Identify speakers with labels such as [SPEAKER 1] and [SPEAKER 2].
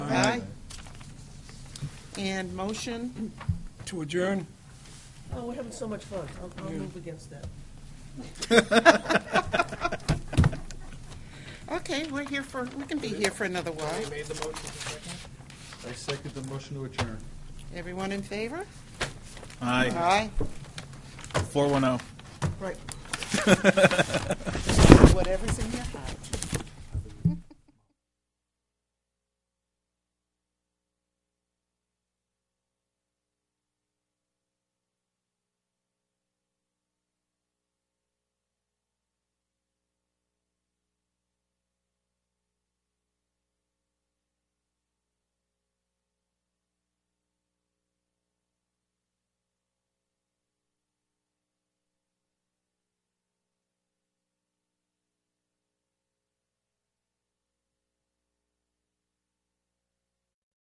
[SPEAKER 1] And motion,
[SPEAKER 2] To adjourn?
[SPEAKER 3] Oh, we're having so much fun. I'll, I'll move against that.
[SPEAKER 1] okay, we're here for, we can be here for another while.
[SPEAKER 4] I second the motion to adjourn.
[SPEAKER 1] Everyone in favor?
[SPEAKER 4] Aye,
[SPEAKER 1] Aye,
[SPEAKER 4] four one oh.
[SPEAKER 1] whatever's in your heart.